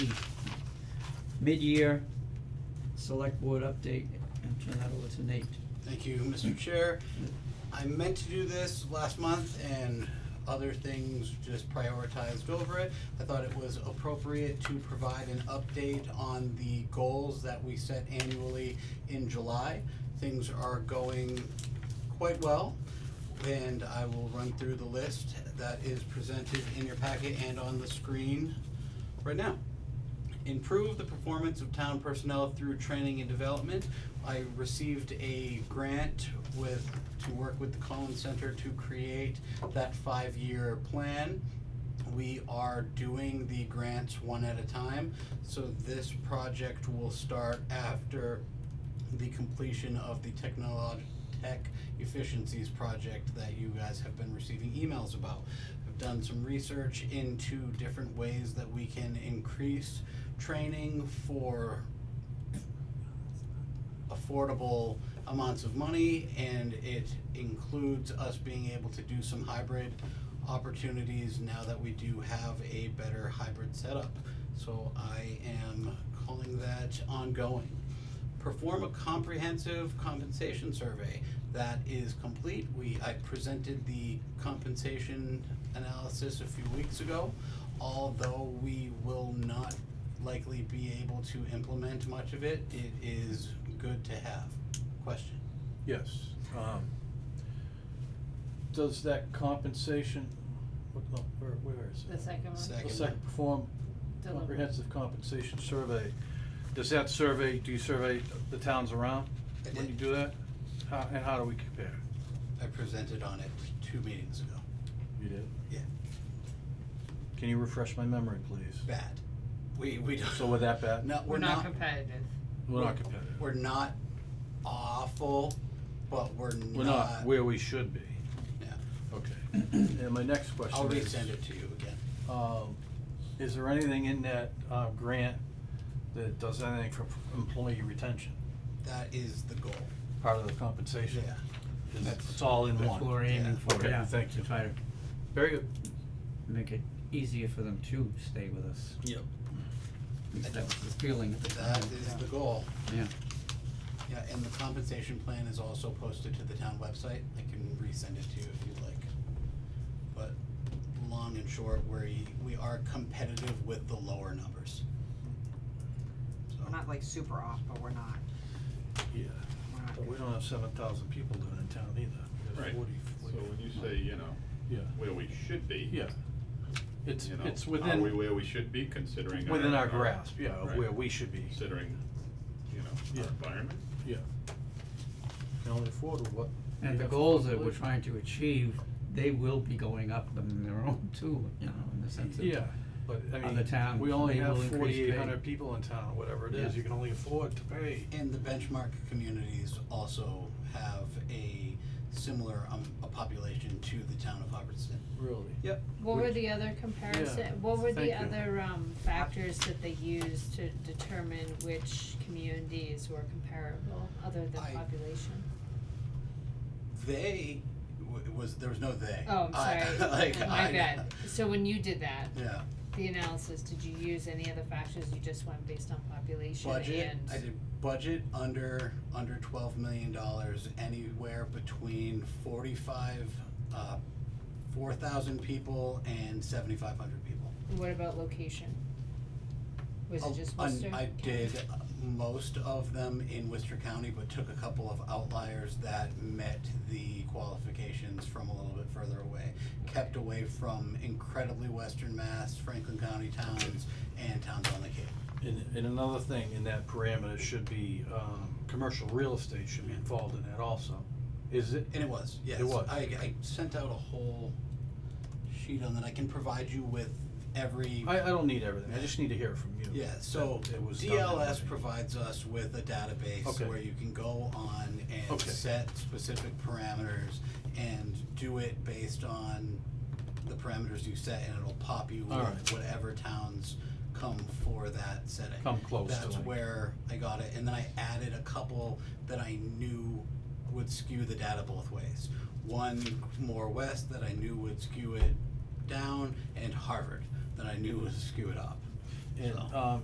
mid-year select board update, and turn that over to Nate. Thank you, Mr. Chair. I meant to do this last month and other things just prioritized over it. I thought it was appropriate to provide an update on the goals that we set annually in July. Things are going quite well, and I will run through the list that is presented in your packet and on the screen right now improve the performance of town personnel through training and development. I received a grant with, to work with the Collins Center to create that five-year plan. We are doing the grants one at a time, so this project will start after the completion of the technolog- tech efficiencies project that you guys have been receiving emails about. I've done some research into different ways that we can increase training for affordable amounts of money and it includes us being able to do some hybrid opportunities now that we do have a better hybrid setup. So I am calling that ongoing. Perform a comprehensive compensation survey. That is complete. We, I presented the compensation analysis a few weeks ago. Although we will not likely be able to implement much of it, it is good to have. Question? Yes, um, does that compensation, what, no, where, where is The it? second one? The Second. second perform Deliver- comprehensive compensation survey, does that survey, do you survey the towns around I when you did. do that? How, and how do we compare? I presented on it two meetings ago. You did? Yeah. Can you refresh my memory, please? Bad. We, we don't. So we're that bad? No, We're not competitive. We're not competitive, We're not awful, but we're not. we're not where we should be, Yeah. okay. And my next question I'll is- resend it to you again. Um, is there anything in that, uh, grant that does anything for employee retention, That is the goal. part of the compensation? Yeah. Is- That's- It's all in That's what one. we're aiming for, Yeah. Okay, yeah, thank to you. try to Very good. make it easier for them to stay with us. Yep. That was the feeling at the That time, is the goal. yeah. Yeah, and the compensation plan is also posted to the town website. I can resend it to you if you'd like. But long and short, we, we are competitive with the lower numbers. We're So, not like super off, but we're not, Yeah, we're not but we don't have seven thousand people living in town either. There's Right, 40, so 40. when you say, you know, Yeah, where we should be. yeah. It's, you know, it's Are we within, where we should be considering? within our grasp, yeah, of Right. where we should be. Considering, you know, Yeah. our environment? Yeah. Can only afford what. we And the have goals that we're afforded. trying to achieve, they will be going up on their own too, you know, in the sense of. Yeah, but I other mean, towns, we only they have will increase pay. forty-eight hundred people in town, whatever it is, Yeah. you can only afford to pay. And the benchmark communities also have a similar, um, a population to the town of Hubbardston. Really? Yep. What were Which- the other comparison, what were the thank you. other, um, factors that they used to determine which communities were comparable, other than I- population? They, w- was, there was no they. Oh, I- I'm like, sorry, my I- bad. So when you did that, Yeah, the analysis, did you use any other factors, you just went based on population and? budget, I did budget under, under twelve million dollars, anywhere between forty-five, uh, four thousand people and seventy-five hundred people. What about location? Was Oh, it just un- Worcester? I County? did uh, most of them in Worcester County, but took a couple of outliers that met the qualifications from a little bit further away. Kept away from incredibly western Mass, Franklin County towns, and towns on the Cape. And, and another thing in that parameter should be, um, commercial real estate should be involved in that also. Is it, And it was, yes. It was. I, I sent out a whole sheet on that. I can provide you with every. I, I don't need everything, I just need to hear it from you. Yeah, so that it was done that DLS way. provides us with a database Okay. where you can go on and Okay. set specific parameters and do it based on the parameters you set and it'll pop you All with right. whatever towns come for that setting. Come close to That's like- where I got it, and then I added a couple that I knew would skew the data both ways. One more west that I knew would skew it down and Harvard that I knew would skew it up. and, So. um,